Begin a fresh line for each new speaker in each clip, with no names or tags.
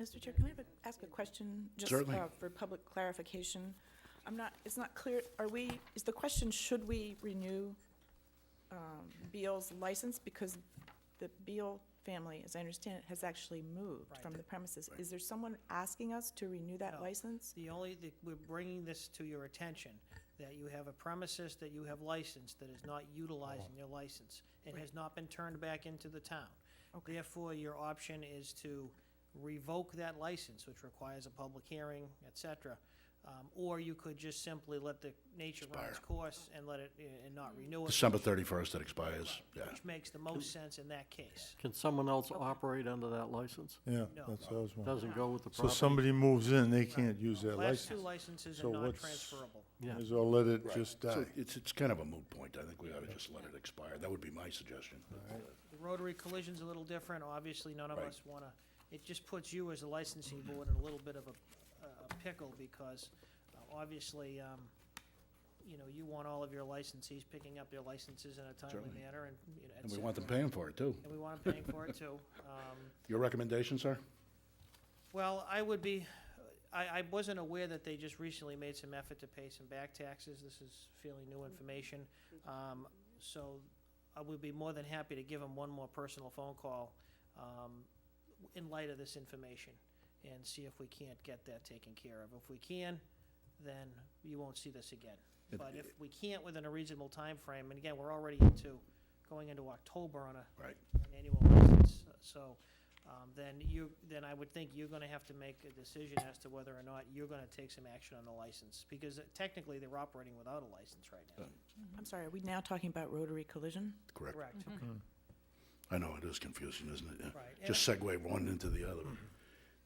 Mr. Chair, can I have a- ask a question? just,
Certainly.
uh, For public clarification? I'm not, it's not clear, are we, is the question, should we renew um, Beal's license? Because the Beal family, as I understand it, has actually moved
Right.
from the premises. Is there someone asking us to renew that
No.
license?
The only, the- we're bringing this to your attention, that you have a premises that you have licensed that is not utilizing your license and has not been turned back into the town.
Okay.
Therefore, your option is to revoke that license, which requires a public hearing, et cetera. Um, Or you could just simply let the nature run its
Expire.
course and let it, eh, and not renew it,
December 31st, it expires, yeah.
which makes the most sense in that case.
Can someone else operate under that license?
Yeah,
No.
that's what I was wondering.
Doesn't go with the
So
property?
somebody moves in, they can't use their
Class two
license.
licenses are
So
not
what's-
transferable.
Yeah,
Might as well let it just
So
die.
It's, it's kind of a moot point. I think we ought to just let it expire. That would be my suggestion.
The rotary collision's a little different, obviously, none of
Right.
us wanna, it just puts you as a licensing board in a little bit of a, a pickle, because uh, obviously, um, you know, you want all of your licensees picking up their licenses in a timely
Certainly.
manner, and, you know, et
And we want them
cetera.
paying for it, too.
And we want them paying for it too. Um,
Your recommendation, sir?
Well, I would be, I, I wasn't aware that they just recently made some effort to pay some back taxes. This is fairly new information. Um, so I would be more than happy to give them one more personal phone call, um, in light of this information and see if we can't get that taken care of. If we can, then you won't see this again.
If-
But if we can't within a reasonable time frame, and again, we're already into, going into October on a
Right.
an annual license, so, um, then you, then I would think you're gonna have to make a decision as to whether or not you're gonna take some action on the license, because technically they're operating without a license right now.
I'm sorry, are we now talking about rotary collision?
Correct.
Correct,
I know, it is confusing, isn't it? Yeah.
right. And Mm-hmm.
Just segue one into the other.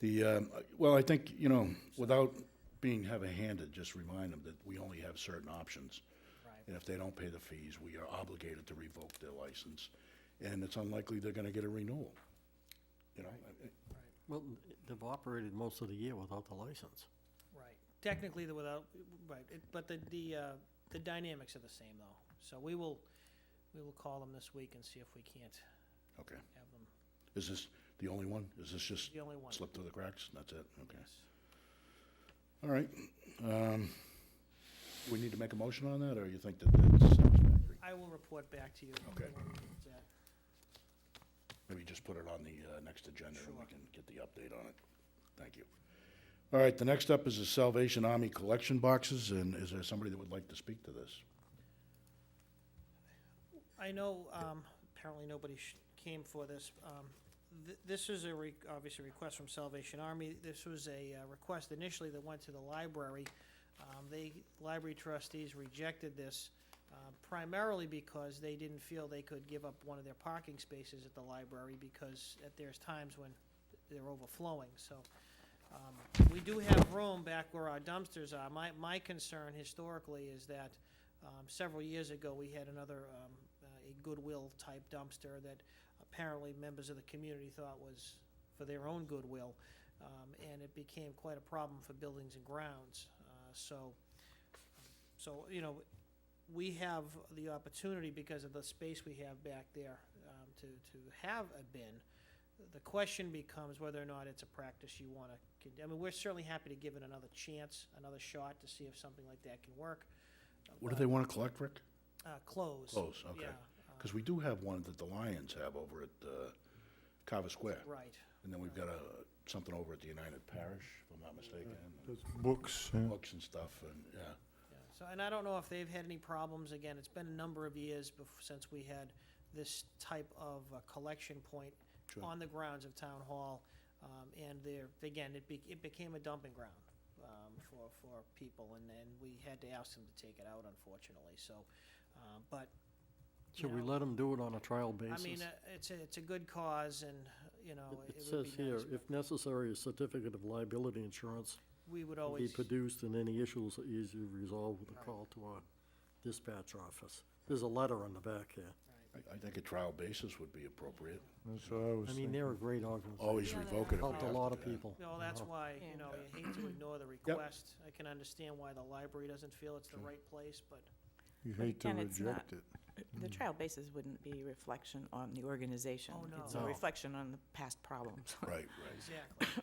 The, um, well, I think, you know, without being heavy-handed, just remind them that we only have certain options.
I- right.
And if they don't pay the fees, we are obligated to revoke their license. And it's unlikely they're gonna get a renewal. You know, I- I-
well, they've operated most of the year without the license.
Right, technically, the without, right, it- but the, the, uh, the dynamics are the same though. So we will, we will call them this week and see if we can't
okay.
have them,
Is this the only one? Is this just
the only one.
slipped through the cracks? That's it? Okay.
Yes.
All right. Um, We need to make a motion on that, or you think that that's satisfactory?
I will report back to you.
Okay.
That-
Maybe just put it on the uh, next agenda, and we
Sure.
can get the update on it. Thank you. All right, the next up is the Salvation Army collection boxes, and is there somebody that would like to speak to this?
I know, um, apparently nobody sh- came for this. Um, th- this is a re- obviously a request from Salvation Army. This was a, uh, request initially that went to the library. Um, they, library trustees rejected this, uh, primarily because they didn't feel they could give up one of their parking spaces at the library because at, there's times when they're overflowing, so. Um, we do have room back where our dumpsters are. My, my concern historically is that, um, several years ago, we had another, um, uh, a Goodwill-type dumpster that apparently members of the community thought was for their own goodwill, um, and it became quite a problem for buildings and grounds. Uh, So, so, you know, we have the opportunity, because of the space we have back there, um, to, to have a bin. The question becomes whether or not it's a practice you want to, I mean, we're certainly happy to give it another chance, another shot, to see if something like that can work.
What do
But-
they want to collect, Rick?
uh, close.
Close, okay.
Yeah, uh,
Because we do have one that the Lions have over at uh, Carver Square,
right.
and then we've got a- something over at the United Parish, if I'm not mistaken,
That's Books, yeah.
books and stuff, and, yeah.
Yeah. So, and I don't know if they've had any problems. Again, it's been a number of years bef- since we had this type of uh, collection point
Sure.
on the grounds of town hall. Um, and there, again, it be, it became a dumping ground, um, for, for people and, and we had to ask them to take it out unfortunately, so, uh, but you
Should we
know,
let them do it on a trial
I mean,
basis?
uh, it's a, it's a good cause and, you know, it
It- It
would
says
be
here,
nice.
if necessary, a certificate of liability insurance
We would
will be
always,
produced and any issues are easily resolved with a
Oh, Right.
call to our dispatch office. There's a letter on the back here.
I- I think a trial basis would be appropriate.
That's what I
I
was
mean,
thinking.
they're a great organization,
Always
Yeah, they
revoke it if we have
helped
to.
a lot of
do that.
people.
No, that's
Uh-huh.
why,
Yeah.
you know, you hate to ignore the request. I can understand why the library doesn't feel it's the
Sure.
right place, but
You
But
hate to
again, it's not-
reject it.
The trial basis wouldn't be a reflection on the organization.
Oh,
It's
no.
a
No.
reflection on the past problems.
Right, right.
exactly.